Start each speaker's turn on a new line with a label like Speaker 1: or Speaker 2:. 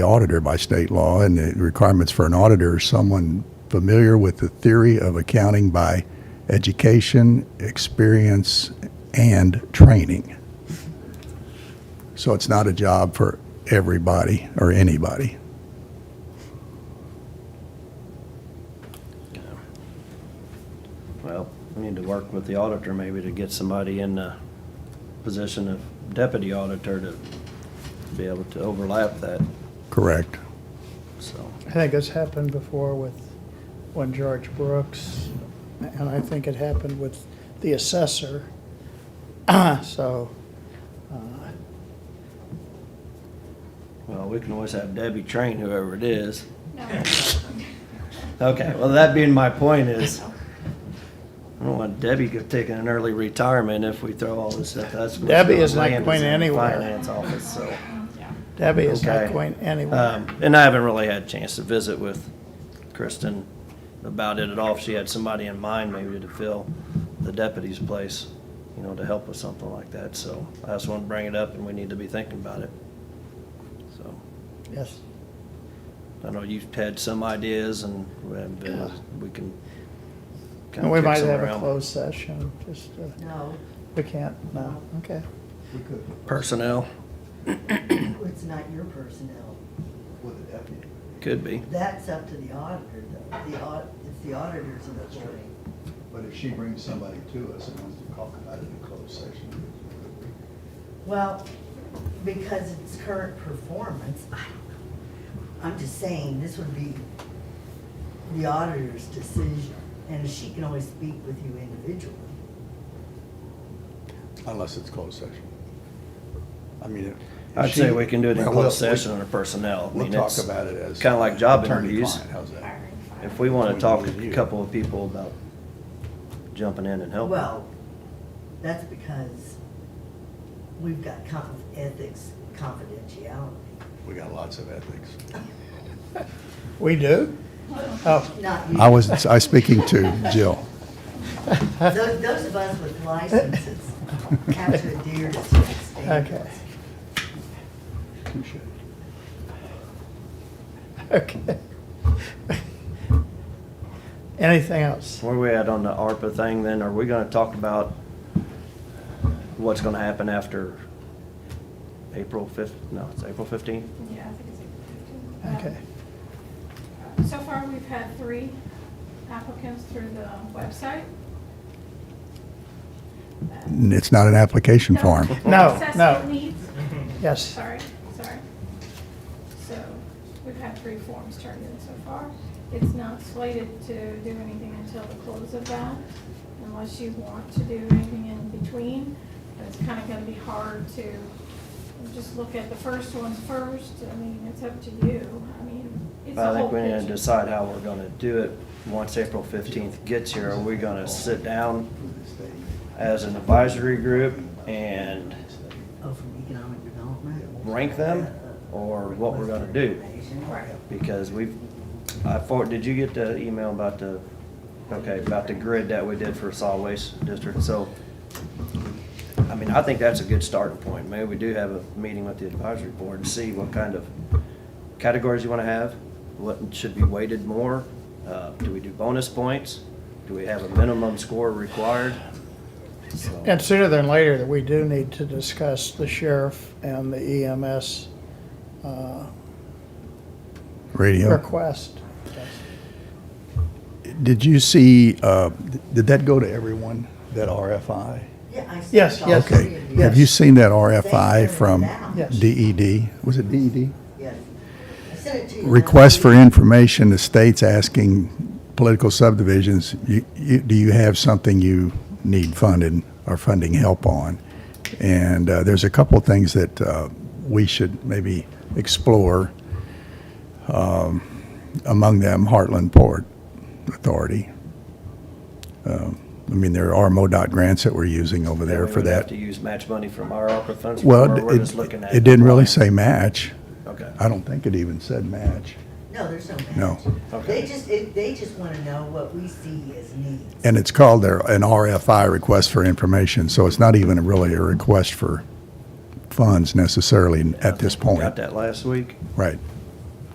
Speaker 1: auditor by state law, and the requirements for an auditor is someone familiar with the theory of accounting by education, experience, and training. So it's not a job for everybody or anybody.
Speaker 2: Well, we need to work with the auditor maybe to get somebody in the position of deputy auditor to be able to overlap that,
Speaker 1: Correct.
Speaker 2: so.
Speaker 3: I think it's happened before with, when George Brooks, and I think it happened with the assessor. So, uh,
Speaker 2: Well, we can always have Debbie train whoever it is.
Speaker 4: No.
Speaker 2: Okay, well, that being my point is, I don't want Debbie to take an early retirement if we throw all this stuff, that's. what's
Speaker 3: Debbie
Speaker 2: going
Speaker 3: is not
Speaker 2: land
Speaker 3: going
Speaker 2: in the
Speaker 3: anywhere.
Speaker 2: Finance office, so.
Speaker 4: Yeah.
Speaker 3: Debbie is not
Speaker 2: Okay.
Speaker 3: going anywhere.
Speaker 2: Um, and I haven't really had a chance to visit with Kristen about it at all. If she had somebody in mind maybe to fill the deputy's place, you know, to help with something like that. So I just want to bring it up and we need to be thinking about it. So
Speaker 3: Yes.
Speaker 2: I know you've had some ideas and and, uh, we can. kinda
Speaker 3: And we
Speaker 2: kick
Speaker 3: might
Speaker 2: some
Speaker 3: have a
Speaker 2: around.
Speaker 3: closed session, just, uh,
Speaker 5: No,
Speaker 3: we can't, no, okay.
Speaker 6: We could,
Speaker 2: Personnel,
Speaker 5: it's not your personnel.
Speaker 6: with the deputy.
Speaker 2: could be.
Speaker 5: That's up to the auditor, though. The au, it's the auditor's authority.
Speaker 6: But if she brings somebody to us and wants to talk about it in closed session, we could.
Speaker 5: Well, because it's current performance, I don't know. I'm just saying, this would be the auditor's decision, and she can always speak with you individually.
Speaker 6: Unless it's closed session. I mean. if- if
Speaker 2: I'd say
Speaker 6: she-
Speaker 2: we can do it in
Speaker 6: Well, we'll-
Speaker 2: closed session under personnel. I
Speaker 6: We'll
Speaker 2: mean,
Speaker 6: talk
Speaker 2: it's
Speaker 6: about it as.
Speaker 2: Kinda like job interviews.
Speaker 6: attorney-client, How's that?
Speaker 2: If we want to
Speaker 6: Between
Speaker 2: talk
Speaker 6: you and
Speaker 2: to a
Speaker 6: you.
Speaker 2: couple of people about jumping in and helping.
Speaker 5: Well, that's because we've got conf- ethics confidentiality.
Speaker 6: We got lots of ethics.
Speaker 3: We do? Oh,
Speaker 5: Not you.
Speaker 1: I was, I was speaking to Jill.
Speaker 5: Those, those of us with licenses have to adhere to certain standards.
Speaker 3: okay, okay. Anything else?
Speaker 2: Where we at on the ARPA thing then? Are we gonna talk about what's gonna happen after April fifth, no, it's April fifteenth?
Speaker 4: Yeah, I think it's April 15th.
Speaker 3: Okay,
Speaker 4: Um, So far, we've had three applicants through the website. Uh,
Speaker 1: It's not an application form.
Speaker 3: No,
Speaker 4: Assessment
Speaker 3: no.
Speaker 4: needs.
Speaker 3: yes.
Speaker 4: Sorry, sorry. So we've had three forms turned in so far. It's not slated to do anything until the close of that, unless you want to do anything in between. But it's kind of going to be hard to just look at the first ones first. I mean, it's up to you. I mean, it's a
Speaker 2: I
Speaker 4: whole
Speaker 2: think we need to
Speaker 4: picture.
Speaker 2: decide how we're gonna do it once April fifteenth gets here. Are we gonna sit down as an advisory group and
Speaker 5: Oh, from economic development?
Speaker 2: rank them? Or what we're gonna do?
Speaker 4: Right.
Speaker 2: Because we've, I for, did you get the email about the, okay, about the grid that we did for solid waste district? So, I mean, I think that's a good starting point. Maybe we do have a meeting with the advisory board and see what kind of categories you wanna have, what should be weighted more. Uh, do we do bonus points? Do we have a minimum score required? So-
Speaker 3: And sooner than later, that we do need to discuss the sheriff and the EMS uh,
Speaker 1: Radio.
Speaker 3: request.
Speaker 1: Did you see, uh, did that go to everyone, that RFI?
Speaker 5: Yeah, I see.
Speaker 3: Yes,
Speaker 5: all
Speaker 3: yes.
Speaker 5: three
Speaker 1: Okay.
Speaker 5: of
Speaker 1: Have you seen that RFI from
Speaker 3: Yes.
Speaker 1: DED? Was it E DED?
Speaker 5: Yes. I sent it to you.
Speaker 1: Request for information, the state's asking political subdivisions, you, you, do you have something you need funded or funding help on? And, uh, there's a couple of things that, uh, we should maybe explore. Um, among them, Heartland Port Authority. Um, I mean, there are MoDOT grants that we're using over there
Speaker 2: We
Speaker 1: for
Speaker 2: would have
Speaker 1: that.
Speaker 2: To use match money from our ARPA funds?
Speaker 1: Well,
Speaker 2: or we're
Speaker 1: it,
Speaker 2: just looking at
Speaker 1: it didn't really
Speaker 2: applying?
Speaker 1: say match.
Speaker 2: Okay.
Speaker 1: I don't think it even said match.
Speaker 5: No, there's no match.
Speaker 1: No.
Speaker 2: Okay.
Speaker 5: They just, it- they just want to know what we see as needs.
Speaker 1: And it's called their, an RFI, request for information, so it's not even really a request for funds necessarily
Speaker 2: I
Speaker 1: at this
Speaker 2: think we
Speaker 1: point.
Speaker 2: Got that last week.
Speaker 1: Right.